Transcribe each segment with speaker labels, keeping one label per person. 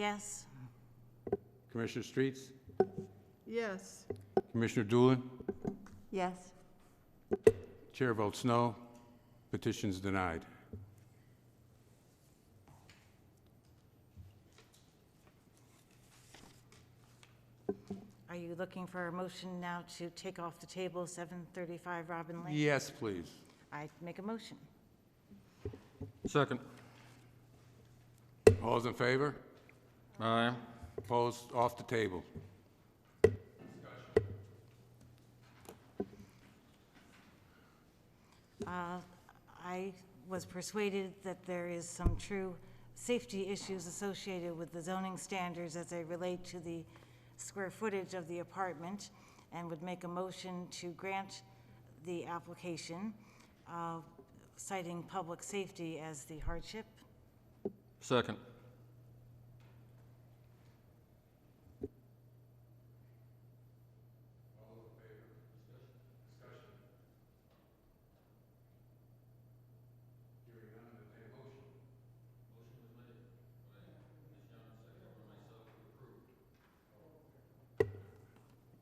Speaker 1: Yes.
Speaker 2: Commissioner Streets?
Speaker 3: Yes.
Speaker 2: Commissioner Doolin?
Speaker 1: Yes.
Speaker 2: Chair votes no. Petition's denied.
Speaker 1: Are you looking for a motion now to take off the table 735 Robin Lane?
Speaker 2: Yes, please.
Speaker 1: I make a motion.
Speaker 4: Second.
Speaker 2: All's in favor?
Speaker 4: Aye.
Speaker 2: Opposed? Off the table.
Speaker 1: Uh, I was persuaded that there is some true safety issues associated with the zoning standards as they relate to the square footage of the apartment, and would make a motion to grant the application, uh, citing public safety as the hardship.
Speaker 4: Second.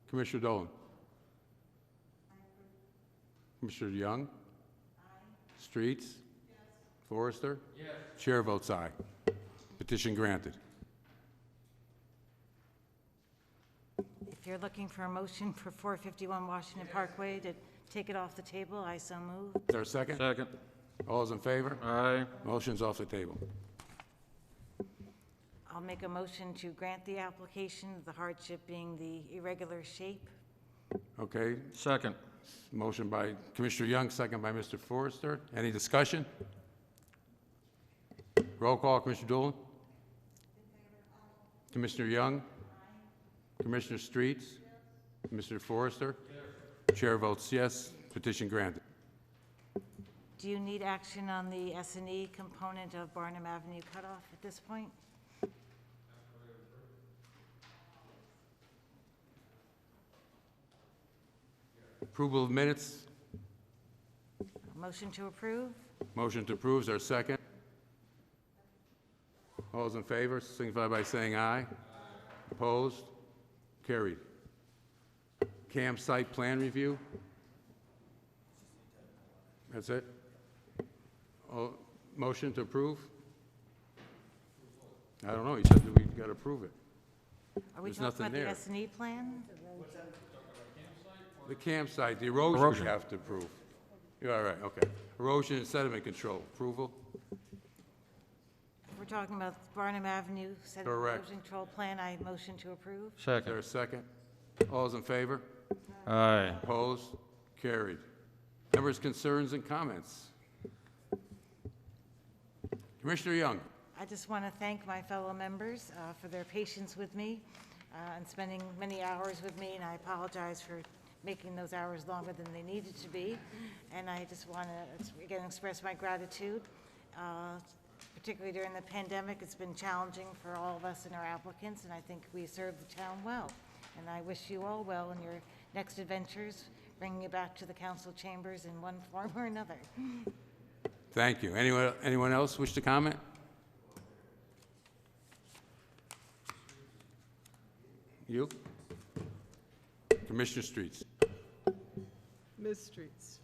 Speaker 2: Commissioner Dolan? Commissioner Young? Aye. Streets? Yes. Forrester? Yes. Chair votes aye. Petition granted.
Speaker 1: If you're looking for a motion for 451 Washington Parkway to take it off the table, I so move.
Speaker 2: Is there a second?
Speaker 4: Second.
Speaker 2: All's in favor?
Speaker 4: Aye.
Speaker 2: Motion's off the table.
Speaker 1: I'll make a motion to grant the application, the hardship being the irregular shape.
Speaker 2: Okay,
Speaker 4: Second.
Speaker 2: motion by Commissioner Young, second by Mr. Forrester. Any discussion? Roll call, Commissioner Doolin? Commissioner Young? Commissioner Streets? Mr. Forrester? Chair votes yes, petition granted.
Speaker 1: Do you need action on the S and E component of Barnum Avenue cutoff at this point?
Speaker 2: Approval of minutes,
Speaker 1: A Motion to approve?
Speaker 2: motion to approve, is there a second? All those in favor, signify by saying aye. Opposed? Carried. Campsite plan review? That's it? Oh, Motion to approve? I don't know, you said that we got to approve it.
Speaker 1: Are we
Speaker 2: There's
Speaker 1: talking
Speaker 2: nothing
Speaker 1: about the
Speaker 2: there.
Speaker 1: S and E plan?
Speaker 2: The campsite, the erosion
Speaker 4: Erosion.
Speaker 2: you have to approve. You're all right, okay. Erosion and sediment control, approval?
Speaker 1: We're talking about Barnum Avenue set
Speaker 2: Correct.
Speaker 1: erosion control plan, I motion to approve?
Speaker 2: Is there
Speaker 4: Second.
Speaker 2: a second? All those in favor?
Speaker 4: Aye.
Speaker 2: Opposed? Carried. Members' concerns and comments? Commissioner Young?
Speaker 1: I just want to thank my fellow members uh, for their patience with me uh, and spending many hours with me, and I apologize for making those hours longer than they needed to be. And I just want to, again, express my gratitude, uh, particularly during the pandemic. It's been challenging for all of us and our applicants, and I think we served the town well. And I wish you all well in your next adventures, bringing you back to the council chambers in one form or another.
Speaker 2: Thank you. Anyone, anyone else wish to comment? You? Commissioner Streets?
Speaker 3: Ms. Streets.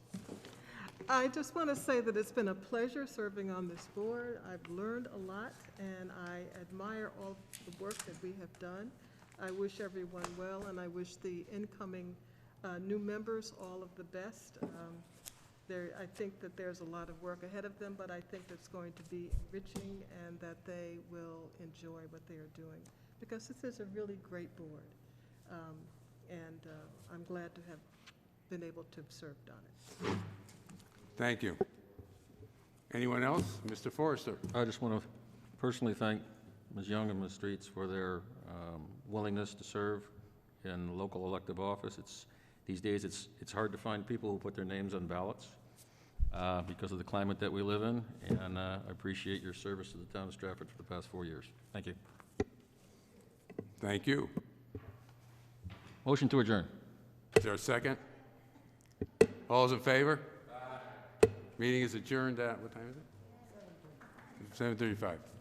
Speaker 3: I just want to say that it's been a pleasure serving on this board. I've learned a lot, and I admire all the work that we have done. I wish everyone well, and I wish the incoming uh, new members all of the best. Um, There, I think that there's a lot of work ahead of them, but I think it's going to be enriching and that they will enjoy what they are doing, because this is a really great board. Um, And uh, I'm glad to have been able to have served on it.
Speaker 2: Thank you. Anyone else? Mr. Forrester?
Speaker 4: I just want to personally thank Ms. Young and Ms. Streets for their um, willingness to serve in local elective office. It's, these days, it's, it's hard to find people who put their names on ballots uh, because of the climate that we live in, and uh, I appreciate your service to the town of Stratford for the past four years. Thank you.
Speaker 2: Thank you.
Speaker 4: Motion to adjourn.
Speaker 2: Is there a second? All those in favor? Meeting is adjourned at, what time is it? 7:35.